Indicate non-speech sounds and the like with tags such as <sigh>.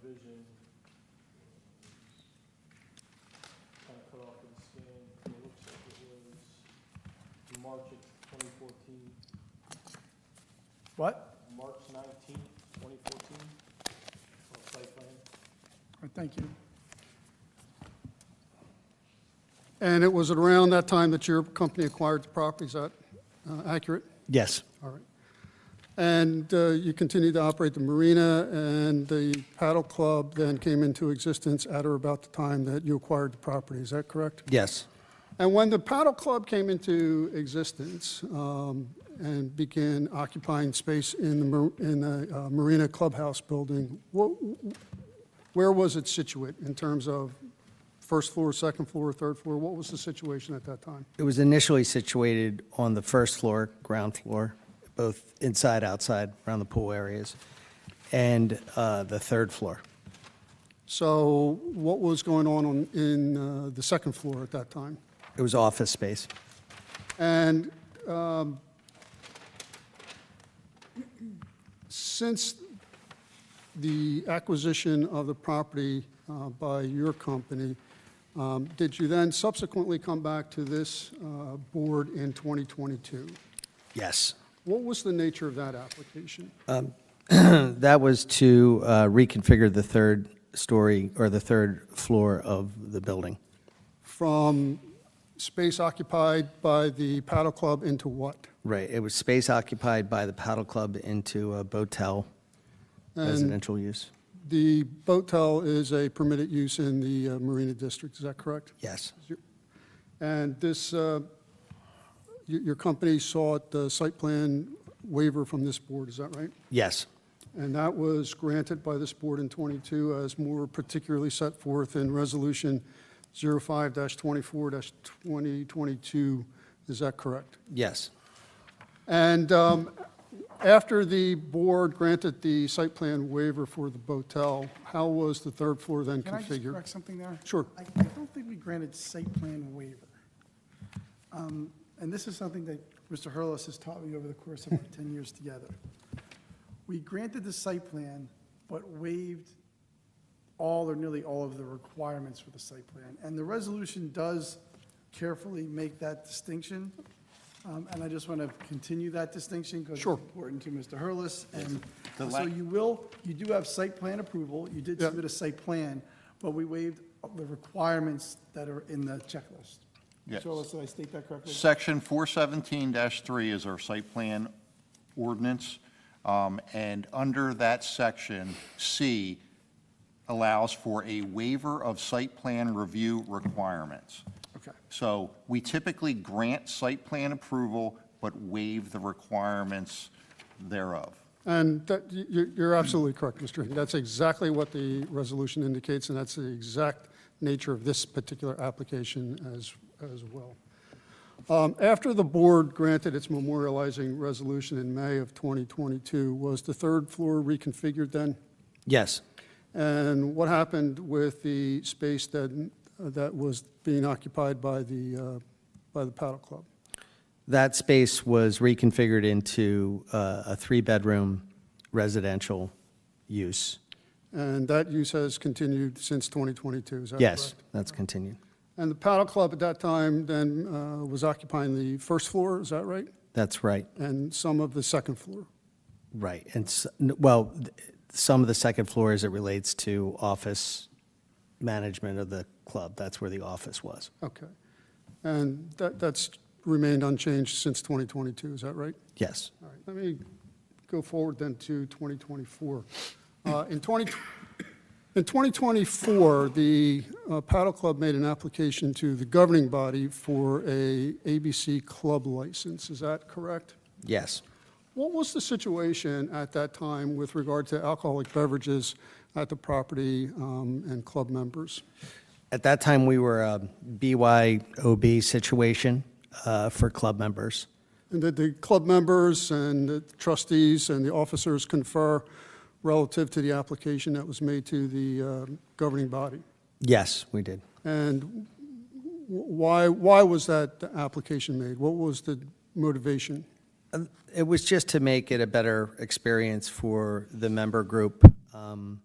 vision. Kind of cut off and scanned, it looks like it was March of twenty fourteen, uh, What? March nineteenth, twenty fourteen. Oh, Site plan, Uh, Thank you. And it was around that time that your company acquired the property, is that uh, accurate? Yes. All right. And uh, you continued to operate the marina, and the paddle club then came into existence at or about the time that you acquired the property, is that correct? Yes. And when the paddle club came into existence um, and began occupying space in the, mar- in the uh, Marina Clubhouse building, what, where was it situate in terms of first floor, second floor, third floor? What was the situation at that time? It was initially situated on the first floor, ground floor, both inside, outside, around the pool areas, and uh, the third floor. So what was going on on in uh, the second floor at that time? It was office space. And um, since the acquisition of the property uh, by your company, um, did you then subsequently come back to this uh, board in 2022? Yes. What was the nature of that application? <clears throat> That was to uh, reconfigure the third story or the third floor of the building. From space occupied by the paddle club into what? Right. It was space occupied by the paddle club into a botel residential use. The boatel is a permitted use in the uh, Marina District, is that correct? Yes. And this, uh, y- your company sought the site plan waiver from this board, is that right? Yes. And that was granted by this board in '22 as more particularly set forth in Resolution 05-24-2022, is that correct? Yes. And um, after the board granted the site plan waiver for the Botel, how was the third floor then Can I just configured? correct something there? Sure. I I don't think we granted site plan waiver. Um, And this is something that Mr. Hurlis has taught me over the course of our <laughs> 10 years together. We granted the site plan, but waived all or nearly all of the requirements for the site plan. And the resolution does carefully make that distinction. Um, And I just want to continue that distinction because it's Sure. important to Mr. Hurlis. And The so la- you will, you do have site plan approval. You did Yeah. submit a site plan, but we waived the requirements that are in the checklist. Yes. Mr. Hurlis, did I state that correctly? Section 417-3 is our site plan ordinance, um, and under that section, C allows for a waiver of site plan review requirements. Okay. So we typically grant site plan approval, but waive the requirements thereof. And that, you- you- you're absolutely correct, Mr. Hinton. That's exactly what the resolution indicates, and that's the exact nature of this particular application as, as well. Um, After the board granted its memorializing resolution in May of 2022, was the third floor reconfigured then? Yes. And what happened with the space that, that was being occupied by the, uh, by the paddle club? That space was reconfigured into uh, a three-bedroom residential use. And that use has continued since 2022, is that correct? Yes, that's continued. And the paddle club at that time then uh, was occupying the first floor, is that right? That's right, And some of the second floor. right. And, s- n- well, th- some of the second floor as it relates to office management of the club. That's where the office was. Okay. And that, that's remained unchanged since 2022, is that right? Yes. All right, let me go forward then to 2024. Uh, In 20, in 2024, the uh, Paddle Club made an application to the governing body for a ABC club license, is that correct? Yes. What was the situation at that time with regard to alcoholic beverages at the property um, and club members? At that time, we were a BYOB situation uh, for club members. And did the club members and the trustees and the officers confer relative to the application that was made to the uh, governing body? Yes, we did. And wh- why, why was that application made? What was the motivation? It was just to make it a better experience for the member group. Um,